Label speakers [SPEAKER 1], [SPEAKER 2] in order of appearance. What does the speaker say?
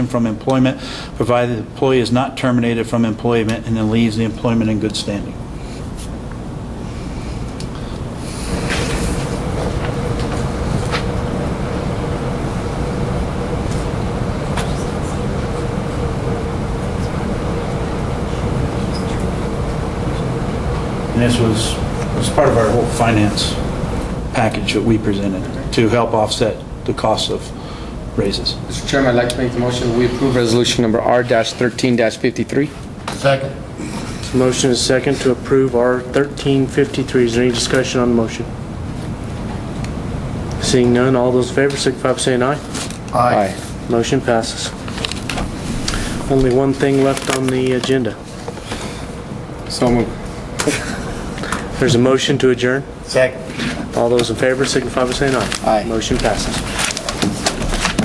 [SPEAKER 1] from employment, provided the employee is not terminated from employment and then leaves the employment in good standing. And this was, was part of our whole finance package that we presented to help offset the cost of raises.
[SPEAKER 2] Mr. Chairman, I'd like to make the motion, we approve resolution number R-13-53.
[SPEAKER 3] Second.
[SPEAKER 4] Motion is second to approve R 1353. Is there any discussion on the motion? Seeing none, all those in favor signify by saying aye.
[SPEAKER 2] Aye.
[SPEAKER 4] Motion passes. Only one thing left on the agenda.
[SPEAKER 2] So moved.
[SPEAKER 4] There's a motion to adjourn.
[SPEAKER 3] Second.
[SPEAKER 4] All those in favor signify by saying aye.
[SPEAKER 2] Aye.
[SPEAKER 4] Motion passes.